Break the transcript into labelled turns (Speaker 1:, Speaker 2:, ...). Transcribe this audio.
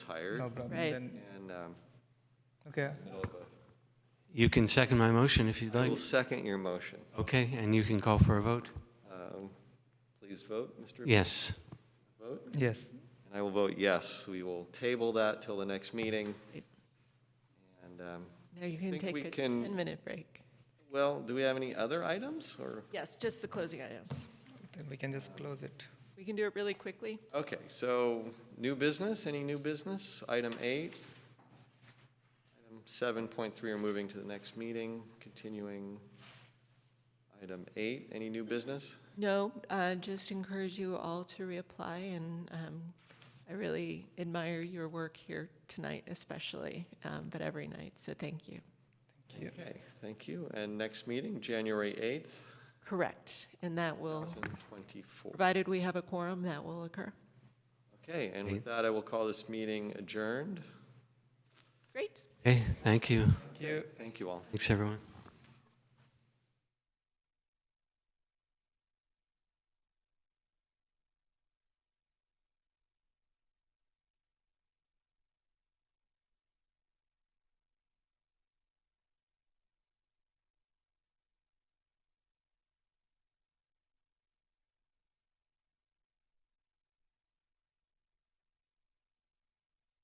Speaker 1: hired.
Speaker 2: No problem.
Speaker 3: Right.
Speaker 2: Then,
Speaker 1: And um,
Speaker 2: okay.
Speaker 4: You can second my motion if you'd
Speaker 1: I
Speaker 4: like.
Speaker 1: will second your motion.
Speaker 4: Okay, and you can call for a vote?
Speaker 1: Um, Please vote, Mr.
Speaker 4: Yes.
Speaker 1: Vote.
Speaker 2: Yes.
Speaker 1: And I will vote yes. We will table that till the next meeting. And, um,
Speaker 3: Now you can
Speaker 1: Think
Speaker 3: take
Speaker 1: we
Speaker 3: a
Speaker 1: can-
Speaker 3: 10-minute break.
Speaker 1: well, do we have any other items or?
Speaker 3: Yes, just the closing items.
Speaker 2: Then we can just close it.
Speaker 3: We can do it really quickly.
Speaker 1: Okay, so new business, any new business? Item eight. Item seven point three are moving to the next meeting, continuing. Item eight, any new business?
Speaker 3: No, uh, just encourage you all to reapply, and um, I really admire your work here tonight especially, um, but every night, so thank you.
Speaker 1: Okay, thank you. And next meeting, January eighth,
Speaker 3: Correct, and that will,
Speaker 1: thousand twenty-four.
Speaker 3: provided we have a quorum, that will occur.
Speaker 1: Okay, and with that, I will call this meeting adjourned.
Speaker 3: Great.
Speaker 4: Okay, thank you.
Speaker 2: Thank you.
Speaker 1: Thank you all.
Speaker 4: Thanks, everyone.